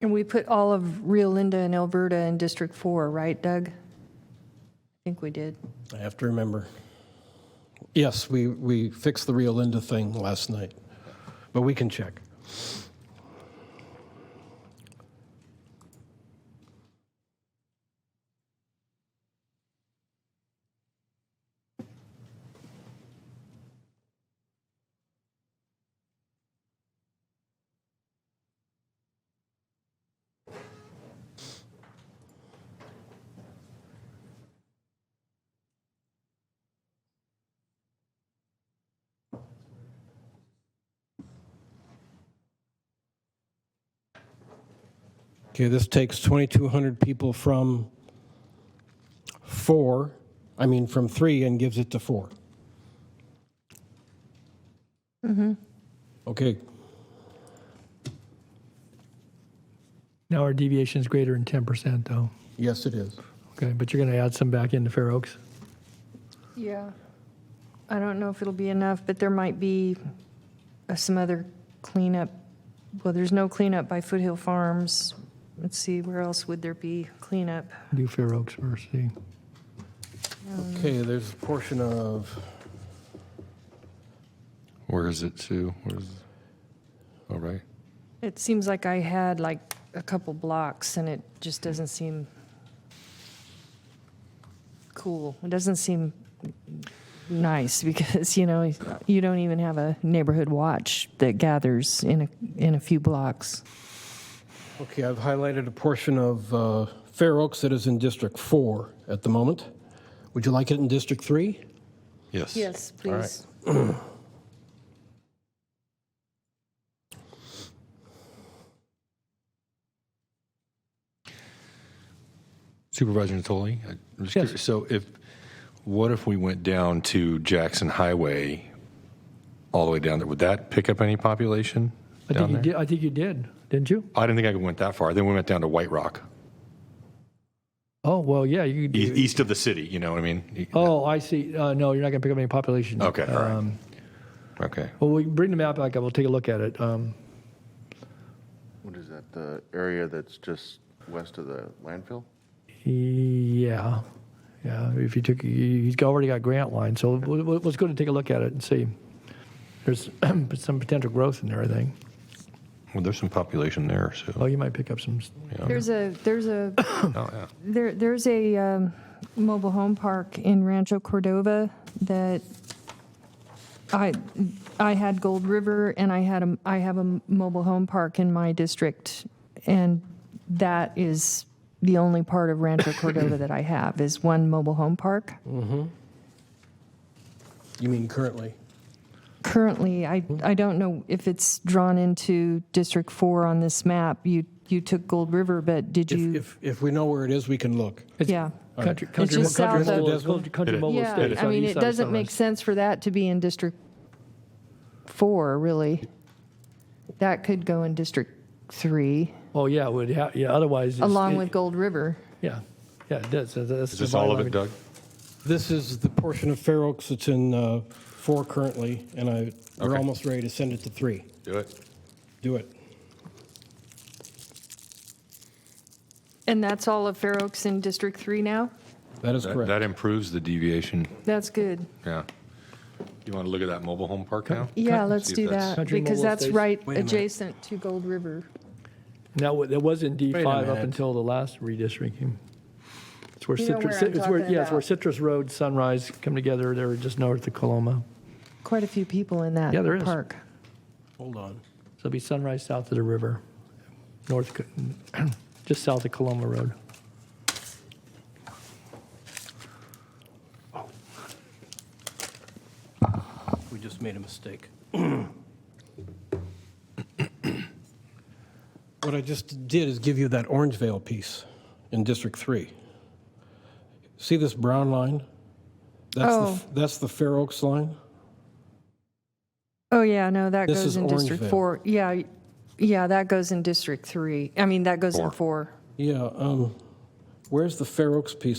And we put all of Rio Linda and Alberta in District 4, right, Doug? I think we did. I have to remember. Yes, we, we fixed the Rio Linda thing last night, but we can check. Okay, this takes 2,200 people from four, I mean, from three and gives it to four. Mm-hmm. Okay, Now our deviation is greater than 10%, though. yes, it is. Okay, but you're going to add some back into Fair Oaks? Yeah. I don't know if it'll be enough, but there might be uh, some other cleanup. Well, there's no cleanup by Foothill Farms. Let's see, where else would there be cleanup? Do Fair Oaks first, see. Okay, there's a portion of, Where is it to? Where is All right. It seems like I had like a couple blocks and it just doesn't seem cool. It doesn't seem nice because, you know, you don't even have a neighborhood watch that gathers in a, in a few blocks. okay, I've highlighted a portion of uh, Fair Oaks that is in District 4 at the moment. Would you like it in District 3? Yes. All right. please. Supervisor Natoli, I'm just Yes. curious. So if what if we went down to Jackson Highway, all the way down there? Would that pick up any population I think down you there? did, I think you did, didn't you? I didn't think I went that far. Then we went down to White Rock, Oh, well, yeah, you could e- do. east of the city. You know what I mean? E, Oh, I see. Uh, no, you're not going to pick up any population. Okay. All right. Um, Okay. Well, we can bring the map back up, we'll take a look at it. Um, What is that, the area that's just west of the landfill? Yeah, yeah, if you took, he's got- already got Grant Line, so we'll- we'll- let's go and take a look at it and see. There's some potential growth in there, I think. Well, there's some population there. Oh, So you might pick up some, s- There's a, there's a, oh, yeah. there, there's a um, mobile home park in Rancho Cordova that I, I had Gold River and I had a, I have a mobile home park in my district. And that is the only part of Rancho Cordova that I have is one mobile home park. You mean currently? Currently, I, I don't know if it's drawn into District Four on this map. You, you took Gold River, but did If, you? if, if we know where it is, we can look. Yeah. Country, country, just country, south mobile, of- country, country Hit it. mobile Yeah, Estates I on the mean, east it side of doesn't make Sunrise. sense for that to be in District 4, really. That could go in District 3, Oh yeah, it would ha- yeah. Otherwise, it's- along it- with Gold River. yeah, yeah, it does. That's- that's Is the this all of bylaw. it, Doug? This is the portion of Fair Oaks that's in uh, four currently, and I, we're Okay. almost ready to send it to three. Do it. Do it. And that's all of Fair Oaks in District 3 now? That is That, correct. that improves the deviation. That's good. Yeah. You want to look at that mobile home park now? Yeah, let's See if do that's- that, Country because Mobile that's Estates. right Wait a minute. adjacent to Gold River. Now wa- that was in D Wait a five up minute. until the last redistricting. It's where You know citrus. where I'm it's where talking yeah, it's where about. Citrus Road, Sunrise come together. They're just north of Coloma. Quite a few people in that Yeah, there is. park. Hold on. So it'll be Sunrise south of the river, north, co- just south of Coloma Road. We just made a mistake. What I just did is give you that Orangevale piece in District 3. See this brown line? That's the, f- that's the Fair Oaks line? Oh, yeah, no, that This goes is in District Orangevale. 4. Yeah, y- yeah, that goes in District 3. I mean, that goes in Four. 4. Yeah, um, where's the Fair Oaks piece